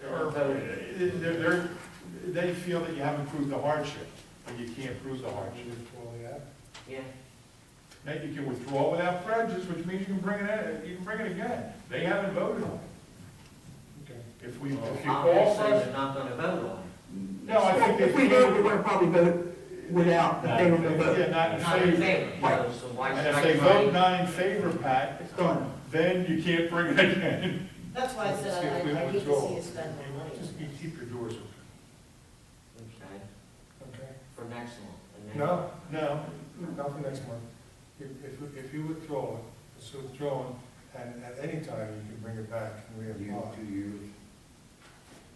So it- they're, they're, they feel that you haven't proved the hardship, and you can't prove the hardship. Yeah, Now, you can withdraw without prejudice, which means you can bring it, in- you can bring it again. They haven't voted on it. If we, if you call for obviously, us, they're not gonna vote on no, I think If if we we. did, we would probably vote without the thing on the Yeah, vote. not it. in Not in favor. favor, so, so why should And if I? they try- vote not in favor, Pat, It's done. then you can't bring it again. That's why I said If we I I hate to withdraw. see us spend more money. Just you keep your doors open. Okay, Okay, for next one. and then- no, No, not for next month. If, if, if you withdraw, it, it's withdrawn, and at any time you can bring it back and reapply.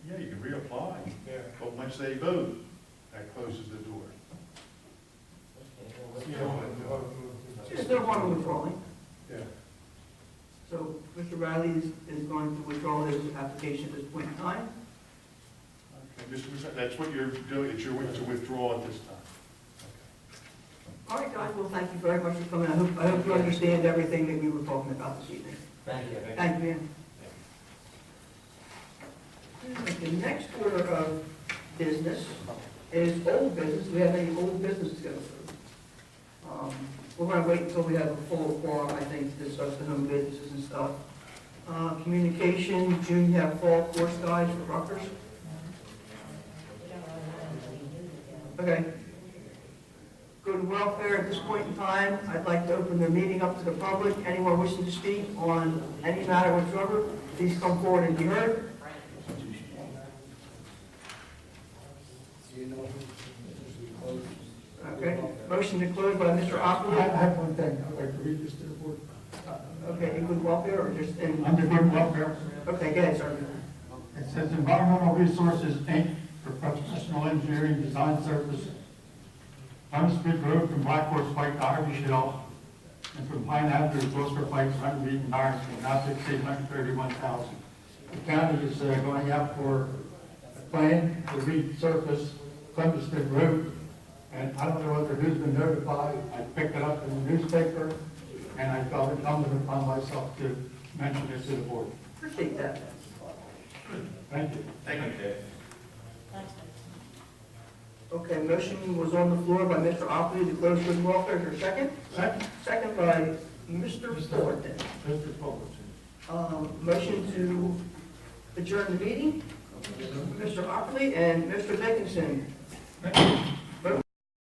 yeah, you can reapply, Yeah, but once they vote, that closes the door. Okay, well, what's you wrong know, with the- it? the- There's no harm in withdrawing. Yeah, So Mr. Riley is, is going to withdraw his application at this point in time. Okay, Mr. Musa, that's what you're doing, it's your, it's a withdrawal at this time. All right, guys, well, thank you very much for coming. I hope, I hope you understand everything that we were talking about this evening. Thank you. Thank you, ma'am. The next order of business is old business. Do we have any old business to go through? Um, We're gonna wait until we have a full quorum, I think, to discuss the home businesses and stuff. Uh, communication, June, you have fall course guides for Rutgers? Okay. Good welfare at this point in time. I'd like to open the meeting up to the public. Anyone wishing to speak on any matter whatsoever, please come forward and be heard. Okay, motion to close by Mr. Aquila. have one thing, I'd like to read this to the board. Okay, in good welfare or just in, Under good welfare, okay, go ahead, sir. it says environmental resources, Inc., for professional engineering design service, Huntsmith Road from Black Horse Pike to Harvey Shell, and from Pine Avenue to Gloucester Pike, to Hunter Beaton, Harris, will not to exceed one hundred thirty-one thousand. The county is uh, going out for a plan to resurface Columbus Smith Road, and I don't know whether who's been notified, I picked it up in the newspaper, and I felt incumbent upon myself to mention this to the board. Appreciate that. Thank you. Thank you. Okay, motion was on the floor by Mr. Aquila to close good welfare. Is there a second? Second, Second by Mr. Thornton. Mr. Fullerton. Um, Motion to adjourn the meeting. Mr. Ockley and Mr. Dickinson.